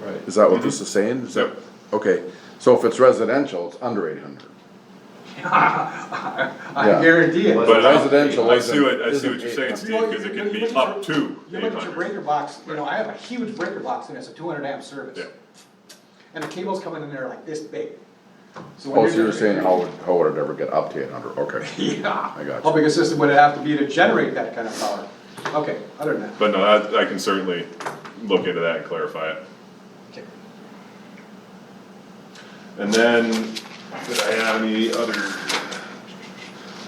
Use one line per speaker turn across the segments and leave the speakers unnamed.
Right. Mm-hmm.
Is that what this is saying? Is that, okay, so if it's residential, it's under eight hundred.
I
Yeah.
guarantee it.
But I-
Residential
I see
isn't-
what, I see what
isn't
you're saying,
eight.
Steve, because it can be up to
You
eight
look at your
hundred.
breaker box, you know, I have a huge breaker box and it's a two hundred amp service.
Yeah.
And the cables coming in there like this big. when
Oh, so
you're-
you're saying how would, how would it ever get up to eight hundred? Okay,
Yeah.
I got
How
you.
big a system would it have to be to generate that kind of power? Okay, other than that.
But no, I, I can certainly look into that and clarify it.
Okay.
And then, did I have any other?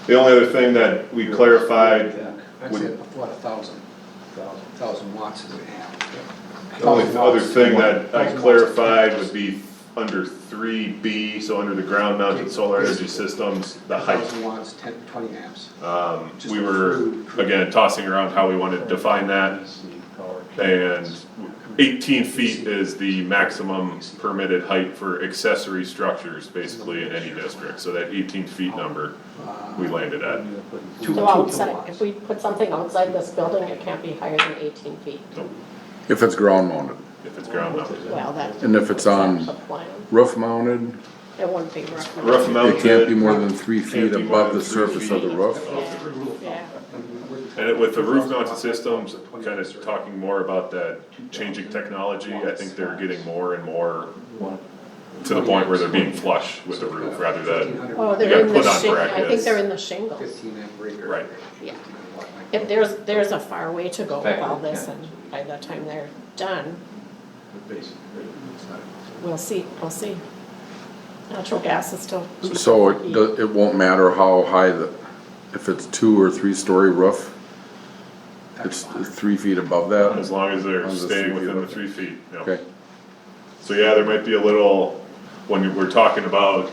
The only other thing that we clarified,
That's it, what, a thousand, thousand, thousand watts is a amp.
the only other thing that I clarified would be under three B, so under the ground mounted solar energy systems, the height.
Thousand watts, ten, twenty amps.
Um, we were, again, tossing around how we wanted to define that, and eighteen feet is the maximum permitted height for accessory structures, basically, in any district, so that eighteen feet number, we landed at.
Two- two
So outside,
kilowatts.
if we put something outside this building, it can't be higher than eighteen feet.
Nope,
If it's ground mounted,
If it's ground mounted.
Well, that.
And if it's on-
that's The plan,
roof mounted,
it wouldn't be rough.
Roof mounted.
it can't be more than three feet
be more
above
than
the
three
surface of the
feet.
roof.
off the roof.
Yeah,
And it- with the roof mounted systems, kind of talking more about that changing technology, I think they're getting more and more to the point where they're being flush with the roof, rather than,
oh,
You gotta
they're in the
put on
shingle, I think
brackets.
they're in the shingles.
Fifteen amp breaker.
Right.
Yeah. If there's, there's a far way to go with all this, and by the time they're done, we'll see, we'll see. Natural gas is still.
So it, do- it won't matter how high the, if it's two or three story roof, it's three feet above
as
that?
long as they're
As long as
staying
it's
within the
okay.
three feet, you know.
Okay,
So yeah, there might be a little, when we're talking about,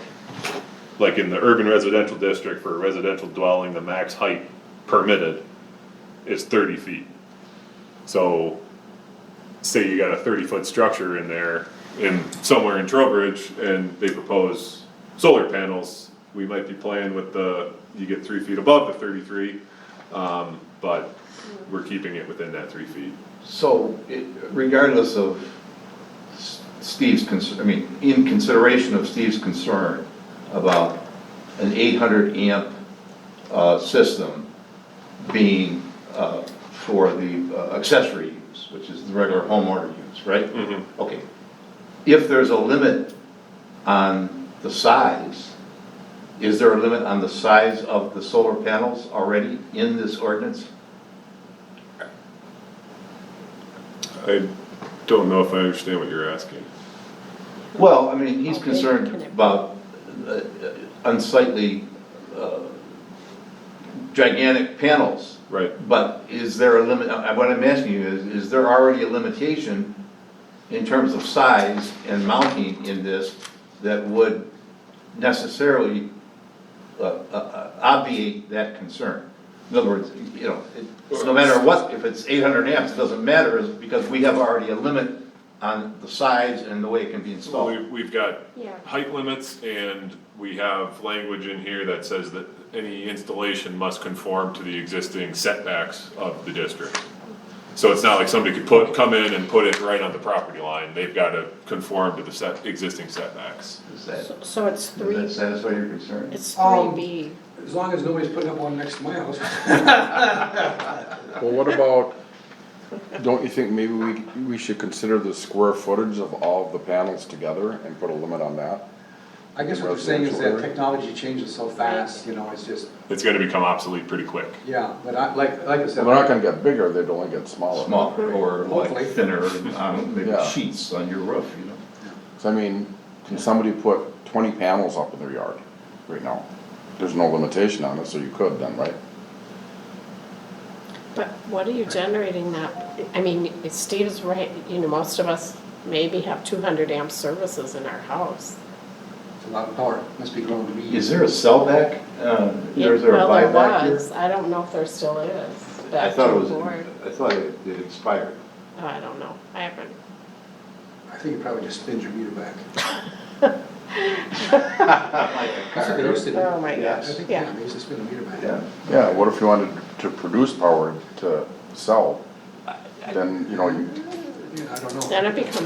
like in the urban residential district for a residential dwelling, the max height permitted is thirty feet. So, say you got a thirty foot structure in there, in, somewhere in Trowbridge, and they propose solar panels, we might be playing with the, you get three feet above the thirty-three, um, but we're keeping it within that three feet.
So it- regardless of S- Steve's concern, I mean, in consideration of Steve's concern about an eight hundred amp uh, system being uh, for the uh, accessory use, which is the regular homeowner use, right?
Mm-hmm.
Mhm.
Okay. If there's a limit on the size, is there a limit on the size of the solar panels already in this ordinance?
I don't know if I understand what you're asking.
Well, I mean, he's
How big can
concerned
it be?
about uh, unsightly, uh, gigantic panels.
Right.
But is there a limit, uh, what I'm asking you is, is there already a limitation in terms of size and mounting in this that would necessarily uh, uh, obviate that concern? In other words, you know, it- no matter what, if it's eight hundred amps, it doesn't matter, is because we have already a limit on the size and the way it can be
Well,
installed.
we've, we've got
Yeah.
height limits and we have language in here that says that any installation must conform to the existing setbacks of the district. So it's not like somebody could put, come in and put it right on the property line, they've gotta conform to the set, existing setbacks.
Does that,
So- So it's
does that
three,
satisfy your concern?
it's three
Um,
B.
As long as nobody's putting up one next to my house.
well, what about, don't you think maybe we, we should consider the square footage of all of the panels together and put a limit on that?
I guess what you're saying is that
Residential area.
technology changes so fast, you know, it's just,
It's gonna become obsolete pretty quick.
yeah, but I, like, like I
They're
said.
not gonna get bigger, they'd only get smaller.
Smaller or
Hopefully.
like thinner, um, maybe
Yeah.
sheets on your roof, you know?
So I mean, can somebody put twenty panels up in their yard right now? There's no limitation on it, so you could then, right?
But what are you generating that, I mean, Steve's right, you know, most of us maybe have two hundred amp services in our house.
It's a lot of power, must be growing to be.
Is there a sellback? Uh, Is there a
Well, there
buyback here?
was. I don't know if there still is.
I
Back
thought
to
it
the
was,
board.
I thought it it expired.
Oh, I don't know, I haven't.
I think you probably just spins your meter back. That's what they used
Yeah,
to do.
Oh, my
I
gosh,
think, yeah,
yeah.
they used to spin the meter back.
Yeah, what if you wanted to produce power to sell? Then, you know, you
Yeah, I don't know.
Then it becomes